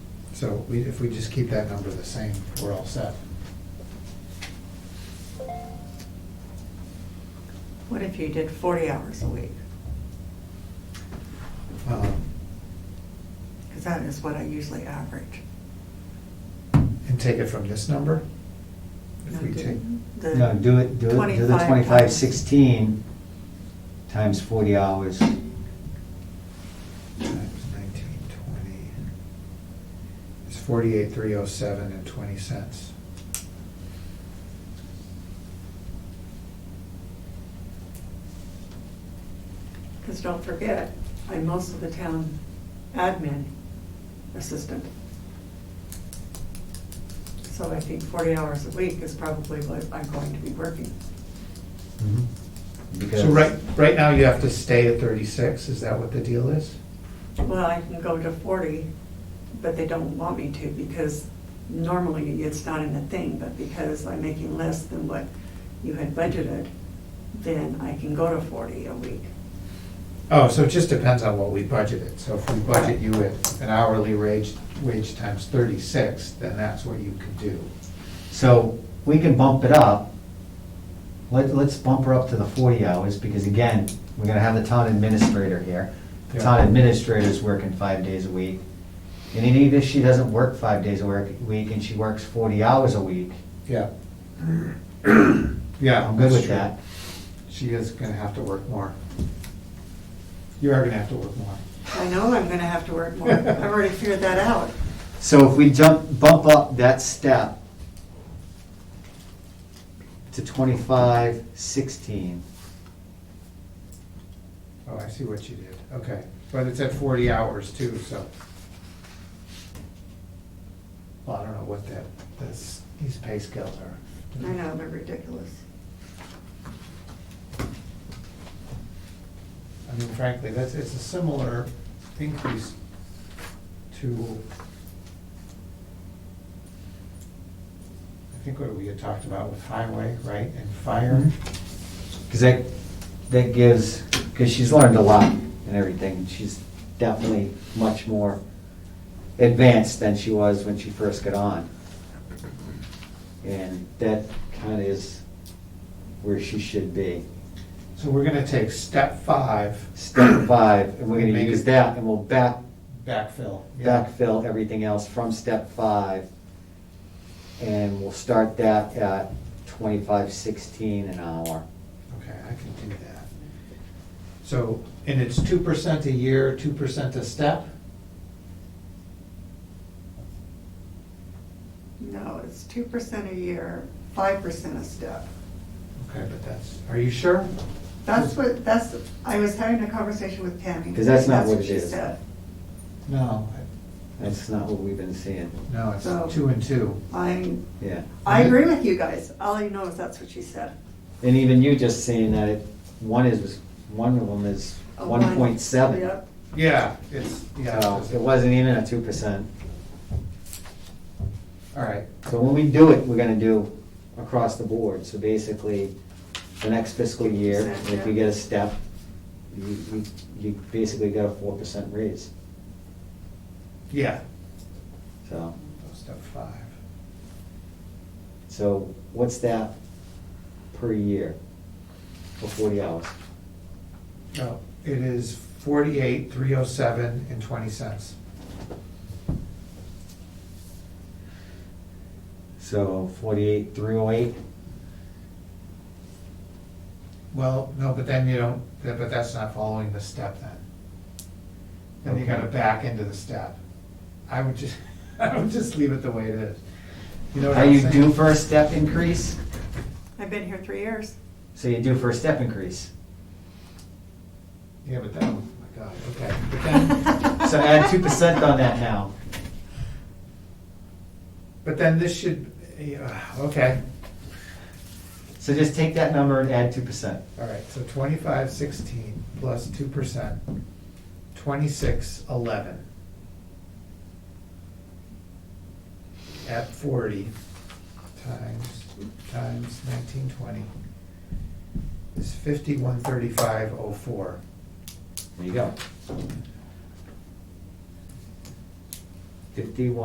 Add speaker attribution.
Speaker 1: So we- if we just keep that number the same, we're all set.
Speaker 2: What if you did forty hours a week?
Speaker 1: Um,
Speaker 2: Because that is what I usually average.
Speaker 1: And take it from this number? If we
Speaker 2: No, do-
Speaker 1: take,
Speaker 2: the
Speaker 3: No, do it, do it, do the
Speaker 2: 25
Speaker 3: twenty-five
Speaker 2: times.
Speaker 3: sixteen times forty hours.
Speaker 1: Mm-hmm. times nineteen twenty, it's forty-eight, three oh seven and twenty cents.
Speaker 2: Because don't forget, I'm most of the town admin assistant. So I think forty hours a week is probably what I'm going to be working.
Speaker 3: Because
Speaker 1: So right, right now you have to stay at thirty-six, is that what the deal is?
Speaker 2: Well, I can go to forty, but they don't want me to because normally it's not in the thing, but because I'm making less than what you had budgeted, then I can go to forty a week.
Speaker 1: Oh, so it just depends on what we budgeted. So if we budget you at an hourly wage, wage times thirty-six, then that's what you could do.
Speaker 3: So we can bump it up. Let, let's bump her up to the forty hours, because again, we're gonna have the town administrator here. The
Speaker 1: Yeah.
Speaker 3: town administrator's working five days a week. And even if she doesn't work five days a work- week, and she works forty hours a week,
Speaker 1: Yeah. Yeah.
Speaker 3: I'm good
Speaker 1: that's
Speaker 3: with
Speaker 1: true.
Speaker 3: that.
Speaker 1: She is gonna have to work more. You are gonna have to work more.
Speaker 2: I know I'm gonna have to work more. I've already figured that out.
Speaker 3: So if we jump, bump up that step to twenty-five sixteen,
Speaker 1: Oh, I see what you did, okay. But it's at forty hours too, so. Well, I don't know what that, this, these pay scales are.
Speaker 2: I know, they're ridiculous.
Speaker 1: I mean, frankly, that's, it's a similar increase to, I think what we had talked about with highway, right, and fire.
Speaker 3: because that, that gives, because she's learned a lot and everything. She's definitely much more advanced than she was when she first got on. And that kind of is where she should be.
Speaker 1: So we're gonna take step five,
Speaker 3: Step five, and we're gonna
Speaker 1: Make it-
Speaker 3: use that, and we'll back
Speaker 1: backfill. Yeah.
Speaker 3: backfill everything else from step five. And we'll start that at twenty-five sixteen an hour.
Speaker 1: Okay, I can do that. So, and it's two percent a year, two percent a step?
Speaker 2: No, it's two percent a year, five percent a step.
Speaker 1: Okay, but that's, are you sure?
Speaker 2: That's what, that's, I was having a conversation with Tammy.
Speaker 3: 'Cause that's not what it
Speaker 2: she
Speaker 3: is.
Speaker 2: said.
Speaker 1: No, I-
Speaker 3: That's not what we've been seeing,
Speaker 1: no, it's
Speaker 2: So-
Speaker 1: two and two.
Speaker 2: I,
Speaker 3: yeah.
Speaker 2: I agree with you guys. All I know is that's what she said.
Speaker 3: And even you just saying that it, one is, one of them is
Speaker 2: A
Speaker 3: one point seven.
Speaker 2: Oh, Yep.
Speaker 1: Yeah, it's, yeah. it
Speaker 3: So
Speaker 1: doesn't-
Speaker 3: it wasn't even a two percent.
Speaker 1: All right,
Speaker 3: So when we do it, we're gonna do across the board, so basically, the next fiscal year, if you get a step, you, you, you basically got a four percent raise,
Speaker 1: yeah.
Speaker 3: so.
Speaker 1: Step five.
Speaker 3: So what's that per year for forty hours?
Speaker 1: No, it is forty-eight, three oh seven and twenty cents.
Speaker 3: So forty-eight, three oh eight?
Speaker 1: Well, no, but then you don't, that- but that's not following the step then. Then you gotta
Speaker 3: Okay.
Speaker 1: back into the step. I would just, I would just leave it the way it is. You know what
Speaker 3: Are
Speaker 1: I'm
Speaker 3: you
Speaker 1: saying?
Speaker 3: due for a step increase?
Speaker 2: I've been here three years.
Speaker 3: So you're due for a step increase.
Speaker 1: Yeah, but then, oh my God, okay. But then,
Speaker 3: So add two percent on that now.
Speaker 1: but then this should, yeah, okay,
Speaker 3: So just take that number and add two percent.
Speaker 1: all right, so twenty-five sixteen plus two percent, twenty-six eleven. At forty times, times nineteen twenty is fifty-one thirty-five oh four.
Speaker 3: There you go. Fifty-one.